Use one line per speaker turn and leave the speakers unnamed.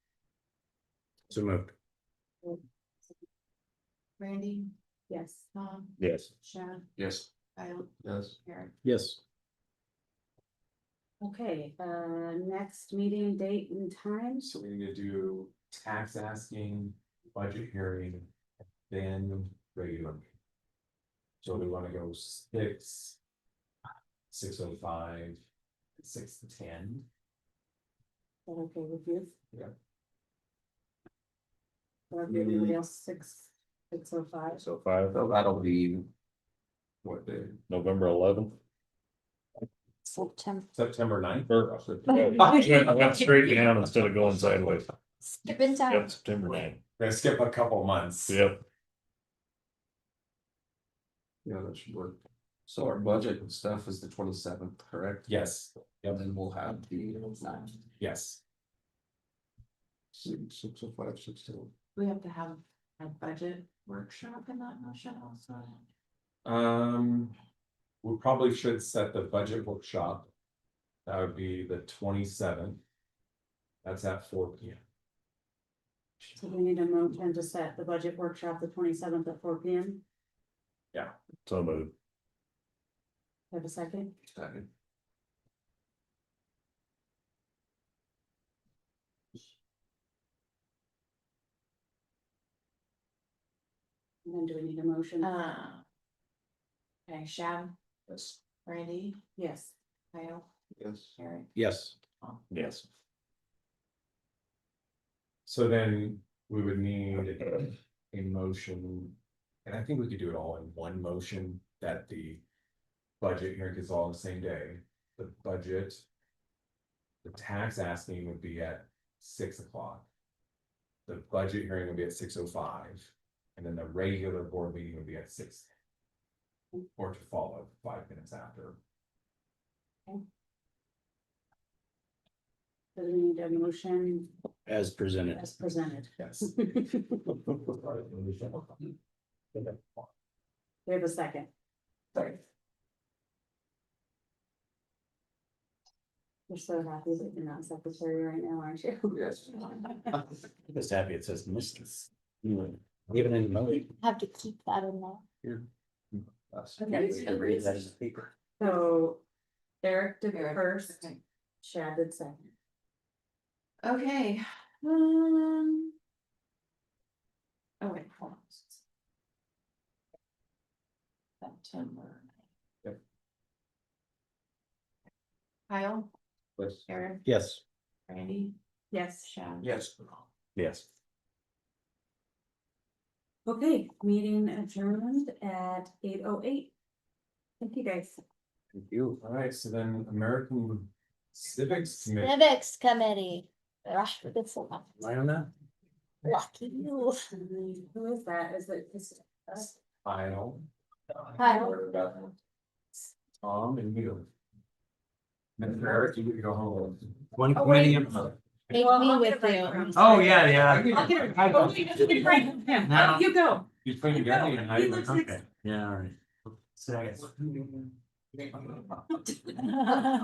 So moved.
Randy,
Yes.
Tom,
Yes.
Chad,
Yes.
Kyle,
Yes.
Eric.
Yes.
Okay, uh, next meeting date and time,
So we need to do tax asking, budget hearing, then regular. So we wanna go six. Six oh five, six to ten,
Is that okay with you?
Yeah.
Or if everybody else six, six oh five,
So five,
so that'll be. What day?
November eleventh.
September,
September ninth?
I went straight down instead of going sideways.
skipping
Yep,
time.
September ninth.
Gonna skip a couple months.
Yep.
Yeah, that should work. So our budget and stuff is the twenty seventh, correct?
Yes,
And then we'll have the.
yes,
Six, six oh five, six two.
We have to have a budget workshop in that motion also.
um. We probably should set the budget workshop. That would be the twenty seventh. That's at four P M.
so we need a motion to set the budget workshop the twenty seventh at four P M,
So moved.
have a second?
Second.
And then do we need a motion?
Uh, Okay, Chad,
Yes.
Randy,
Yes,
Kyle,
Yes.
Eric.
Yes. Yes.
So then we would need a motion, and I think we could do it all in one motion, that the budget hearing is all on the same day, the budget. The tax asking would be at six o'clock. The budget hearing would be at six oh five, and then the regular board meeting would be at six. Or to follow five minutes after.
so we need a motion
As presented.
as presented,
Yes.
we have a second,
Sorry.
we're so happy that you're not secretary right now, aren't you?
Yes.
Just happy it says Mrs. Even in motion.
Have to keep that in mind.
Us.
Okay.
We can read that as a paper.
So Derek did
Eric,
first,
okay.
Chad did second.
Okay, um. Oh, wait, hold on. September.
Yep.
Kyle,
Yes.
Eric,
Yes.
Randy,
Yes.
Chad.
Yes.
Yes.
Okay, meeting adjourned at eight oh eight. Thank you, guys.
Thank you.
All right, so then American Civics Committee.
Civics Committee. Gosh, that's a lot.
I don't know.
Lucky you.
Who is that? Is it is it us?
Kyle.
Kyle.
Or about Tom and you. And Eric, you can go home.
One
Oh, wait.
committee.
Take
Well,
me
I'll
with
get
you.
right
Oh, yeah, yeah.
I'll get it.
I-
Oh, you just keep writing.
Oh,
No.
You go.
You played a game and I
He looks like-
Yeah, all right. So I guess.
was.